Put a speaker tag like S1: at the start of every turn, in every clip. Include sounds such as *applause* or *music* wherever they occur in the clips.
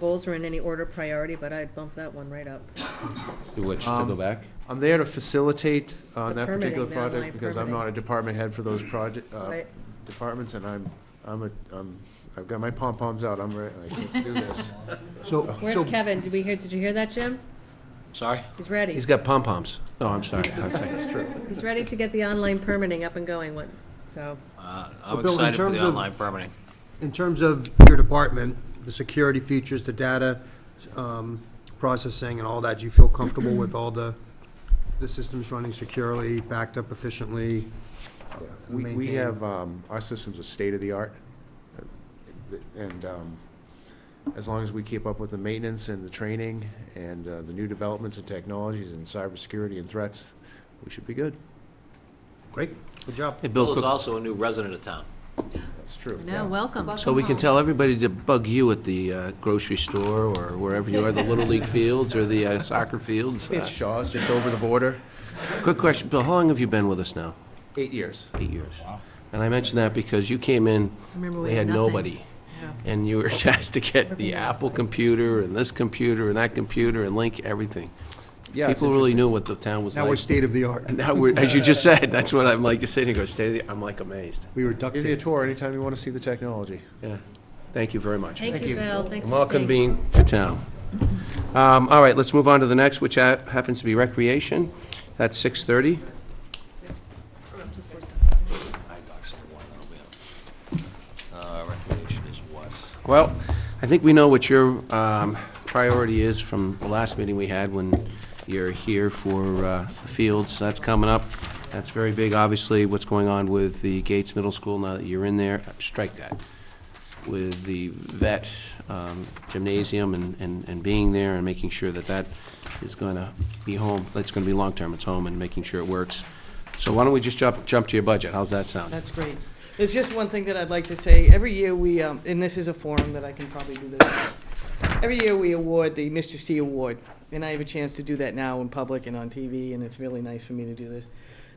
S1: Goals are in any order of priority, but I'd bump that one right up.
S2: To which, to go back?
S3: I'm there to facilitate on
S1: The
S3: that
S1: permitting,
S3: particular
S1: the
S3: project,
S1: online
S3: because I'm
S1: permitting.
S3: not a department head for those project, uh,
S1: Right.
S3: departments, and I'm, I'm a, I'm, I've got my pom-poms out, I'm ready, like, let's do
S4: *laughs*
S3: this.
S5: Oh.
S4: So,
S1: Where's
S4: so
S1: Kevin? Did we hear, did you hear that, Jim?
S5: Sorry?
S1: He's ready.
S2: He's got pom-poms. No, I'm sorry. I'm sorry.
S3: That's true.
S1: He's ready to get the online permitting up and going, What? so.
S5: Uh, I'm
S4: But Bill, in
S5: excited for
S4: terms
S5: the
S4: of-
S5: online permitting.
S4: in terms of your department, the security features, the data um, processing and all that, do you feel comfortable with all the, the systems running securely, backed up efficiently?
S3: We, we
S4: maintained?
S3: have, um, our systems are state-of-the-art, and, um, as long as we keep up with the maintenance and the training and, uh, the new developments and technologies and cybersecurity and threats, we should be good.
S4: Great, good job.
S2: Hey, Bill
S5: Bill is
S2: Cook,
S5: also a new resident of town.
S3: That's true.
S1: Now, welcome.
S2: so we can tell everybody to bug you at the uh, grocery store or wherever you are, the Little *laughs* League fields or the uh, soccer fields.
S3: It's
S2: Uh,
S3: Shaw's, just over the border,
S2: Quick question, Bill, how long have you been with us now?
S3: eight years.
S2: Eight years. And I mention that because you came in,
S1: Remember,
S2: we had
S1: nothing.
S2: nobody.
S1: Yeah.
S2: And you were *laughs* tasked to get
S1: Everything.
S2: the Apple computer and this computer and that computer and link everything.
S3: Yeah, it's
S2: People really
S3: interesting.
S2: knew what the town was like.
S4: Now we're
S2: *laughs*
S4: state-of-the-art.
S2: Now we're, as you just said, that's what I'm like, you're sitting here, state of the, I'm like amazed.
S4: We were duct
S3: Give you a
S4: taped.
S3: tour anytime you want to see the technology.
S2: Yeah. Thank you very much.
S1: Thank you, Bill. Thanks for
S2: Welcome
S1: staying.
S2: being to town. Um, All right, let's move on to the next, which ha- happens to be recreation. That's 6:30.
S5: Uh, Recreation is what?
S2: Well, I think we know what your um, priority is from the last meeting we had when you're here for uh, the fields. That's coming up. That's very big, obviously, what's going on with the Gates Middle School now that you're in there. Strike that. With the vet um, gymnasium and- and and being there and making sure that that is going to be home. That's going to be long-term. It's home and making sure it works. So why don't we just jump jump to your budget? How's that sound?
S6: That's great. There's just one thing that I'd like to say. Every year we, um, and this is a forum that I can probably do this. at. Every year we award the Mr. C Award, and I have a chance to do that now in public and on TV, and it's really nice for me to do this.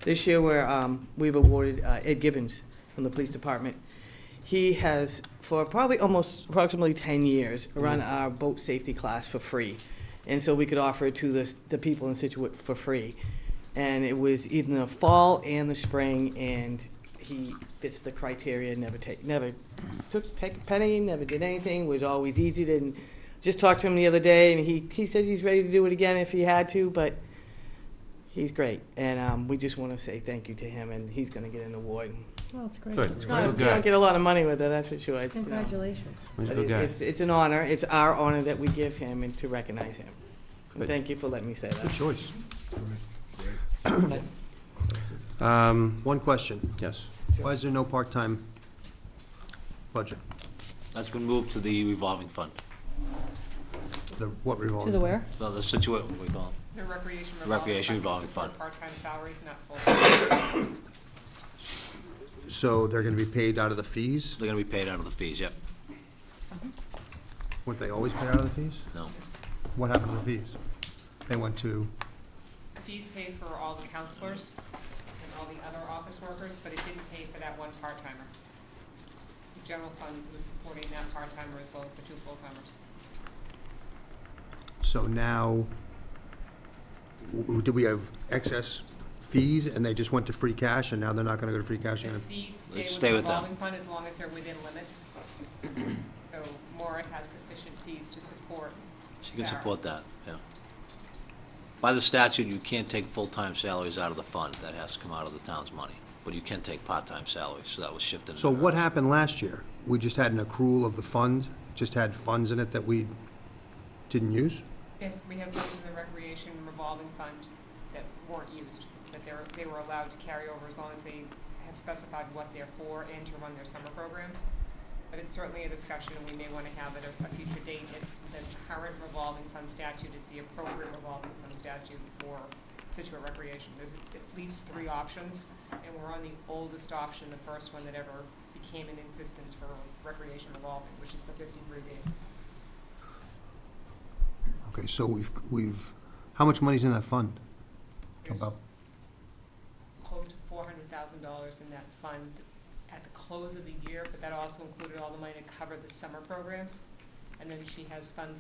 S6: This year we're, um, we've awarded uh, Ed Gibbons from the police department. He has, for probably almost approximately ten years, run our boat safety class for free. And so we could offer it to the, the people in Situate for free. And it was in the fall and the spring, and he fits the criteria, never take, never took, take a penny, never did anything, was always easy to, and just talked to him the other day, and he, he says he's ready to do it again if he had to, but he's great. And, um, we just wanna say thank you to him, and he's gonna get an award.
S1: Well, it's great.
S2: Good.
S6: It's
S2: Well,
S6: not- You
S2: good.
S6: don't get a lot of money with it, that's for sure. It's, you know,
S1: Congratulations.
S2: Well,
S6: but
S2: good
S6: it-
S2: guy.
S6: Uh, It's, it's an honor, it's our honor that we give him and to recognize him. And
S2: Good.
S6: Thank you for letting me say
S4: Good
S6: that.
S4: choice.
S2: Um,
S4: One question.
S2: Yes.
S4: Why is there no part-time budget?
S5: That's been moved to the revolving fund,
S4: The, what revolving?
S1: To the where?
S5: No, the Situate, what we call it.
S7: The recreation revolving.
S5: Recreation revolving
S7: is for
S5: fund.
S7: Part-time salaries, not full-time.
S4: So they're gonna be paid out of the fees?
S5: They're gonna be paid out of the fees, yep.
S4: Weren't they always paid out of the fees?
S5: No.
S4: What happened to the fees? They went to,
S7: Fees paid for all the counselors and all the other office workers, but it didn't pay for that one part-timer. The general fund was supporting that part-timer as well as the two full-timers.
S4: so now, w- w- do we have excess fees and they just went to free cash and now they're not gonna go to free cash?
S7: The
S4: and-
S7: fees stay
S5: Let's
S7: with
S5: stay
S7: the
S5: with them.
S7: revolving fund as long as they're within limits. So Maura has sufficient fees to support
S5: She can
S7: Sarah.
S5: support that, yeah. By the statute, you can't take full-time salaries out of the fund. That has to come out of the town's money. But you can take part-time salaries, so that was shifted.
S4: So what happened last year? We just had an accrual of the fund, just had funds in it that we didn't use?
S7: Yes, we have those in the recreation revolving fund that weren't used, that they were, they were allowed to carry over as long as they have specified what they're for and to run their summer programs. But it's certainly a discussion, and we may want to have at a, a future date, if the current revolving fund statute is the appropriate revolving fund statute for Situate recreation. There's at least three options, and we're on the oldest option, the first one that ever became in existence for recreation revolving, which is the fifty-three day.
S4: Okay, so we've, we've, how much money's in that fund? About,
S7: close to four hundred thousand dollars in that fund at the close of the year, but that also included all the money to cover the summer programs. and then she has funds